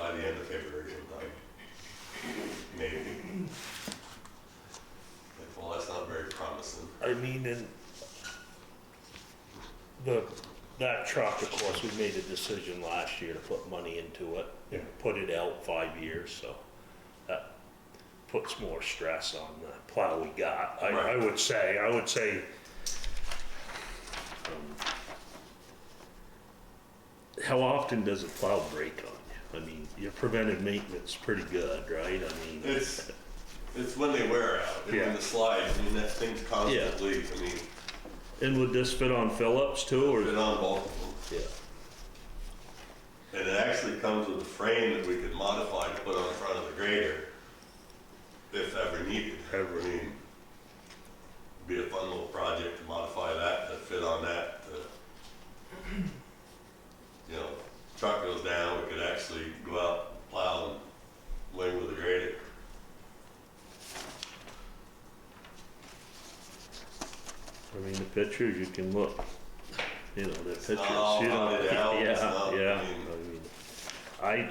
end of February sometime. Maybe. Like, well, that's not very promising. I mean, and the, that truck, of course, we made a decision last year to put money into it. Yeah. Put it out five years, so that puts more stress on the plow we got. I, I Right. would say, I would say. um, How often does a plow break on you? I mean, your preventive maintenance is pretty good, right? I mean. It's, it's when they wear out, and when Yeah. the slides, I mean, that thing's Yeah. constantly, I mean, And would this fit on Phillips too, or? put it on both of them. Yeah. And it actually comes with a frame that we could modify to put on front of the grader if ever needed. Ever. I mean, Be a fun little project to modify that, to fit on that, to, you know, truck goes down, we could actually go out, plow and lay with the grader. I mean, the pictures, you can look, you know, the pictures, you not all know, hunted out, it's yeah, not, I yeah, mean- I mean, I.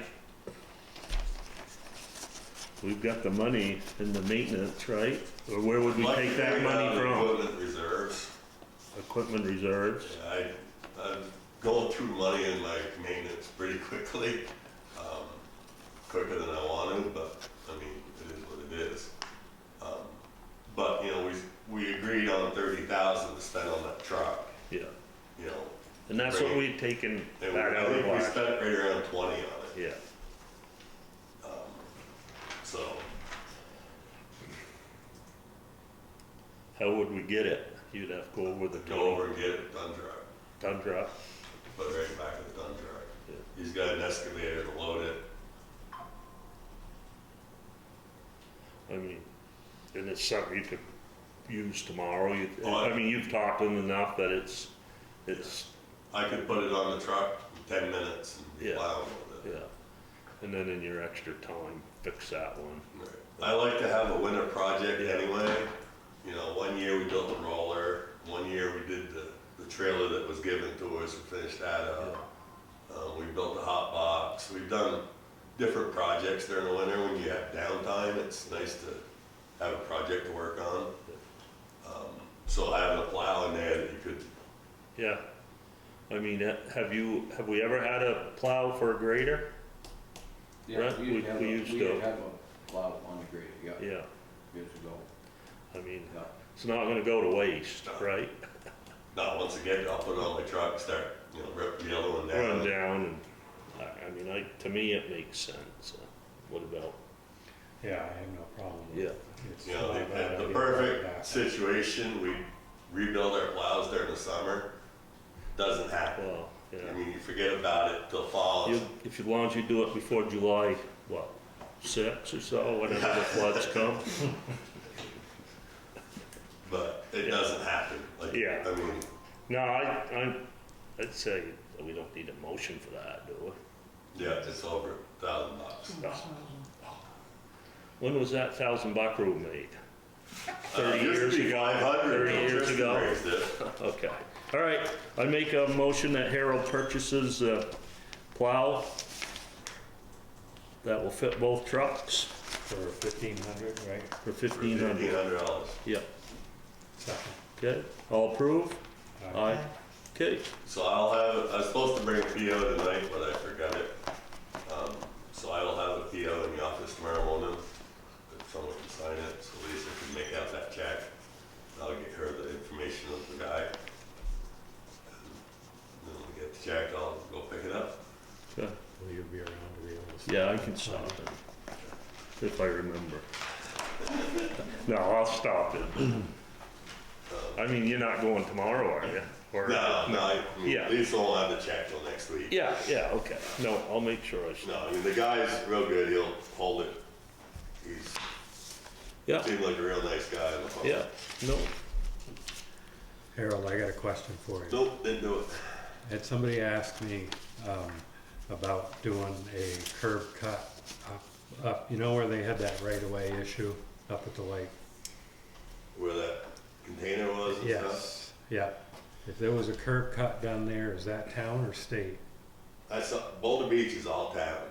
We've got the money in the maintenance, right? Or where would we Like take to that take out money of from? Equipment reserves. Equipment reserves, I, I'm going through money in my maintenance pretty quickly, um, quicker than I want to, but, I mean, it is what it is. Um, But, you know, we, we agreed on thirty thousand to spend on that truck, yeah, you know. and that's what Right. we'd taken and back I out of think we last, spent right around twenty on it, yeah. so, How would we get it? You'd have to go over the go total over and get it done truck, ton drop, put it right back in the done truck. Yeah. He's got an excavator to load it, I mean, and it's something you could use tomorrow, you, Oh, I- I mean, you've talked to them enough that it's, it's I could put it on the truck in ten minutes and be Yeah. plowing with it. Yeah, and then in your extra time, fix that one. I like to have a winter project Yeah. anyway. You know, one year we built a roller, one year we did the, the trailer that was given to us, we finished that up. Uh, we built a hot box, we've done different projects during the winter when you have downtime, it's nice to have a project to work on. Um, So having a plow in there that you could, Yeah, I mean, ha- have you, have we ever had a plow for a grader? Yeah, Right, we- used to have we a- used We to. used to have a lot of on the grid, yeah, Yeah, years ago, I mean, yeah. it's not gonna go to waste, No. right? now, once again, I'll put it on my truck, start, you know, rip the yellow one Run down. down and, I, I mean, I, to me, it makes sense. Uh, What about, uh, Yeah, I have no problem. with yeah, it. It's You know, not a the- uh, bad the, the idea. perfect situation, we rebuild our plows during the summer, doesn't happen. well, I yeah. mean, you forget about it till fall, You, if you, as long as you do it before July, what, six or so, whenever the floods come? but it Yeah. doesn't happen. Like, Yeah. I mean, No, I, I, I'd say we don't need a motion for that, do we? yeah, it's over a thousand bucks. When was that thousand buck rule made? Uh, Thirty years ago. Five hundred. Thirty years ago. Raised it. Okay. All right. I make a motion that Harold purchases a plow that will fit both trucks For fifteen hundred, right? for For fifteen fifteen hundred. hundred dollars. Yep. Second. Okay. All approved? Aye. Aye. Okay. So I'll have, I was supposed to bring a PO tonight, but I forgot it. Um, So I will have a PO in the office tomorrow morning, if someone can sign it, so Lisa can make out that check. I'll get her the information of the guy. And Then we get the check, I'll go pick it up. Okay. Will you be around to be able to? see? Uh, Yeah, I can stop it if I remember. No, I'll stop it. I mean, you're not going tomorrow, are you? Or- No, no, I- I mean, Yeah. Lisa will have the check till next week. Yeah, yeah, okay. No, I'll make sure I No, stop. I mean, the guy's real good, he'll hold it. He's, Yeah, seemed like a real nice guy on the phone. yeah, no, Harold, I got a question for you. Nope, didn't do it. Had somebody asked me, um, about doing a curb cut up, up, you know where they had that right of way issue up at the lake? Where that container was and stuff. Yes, yeah. If there was a curb cut down there, is that town or state? That's Boulder Beach is all town.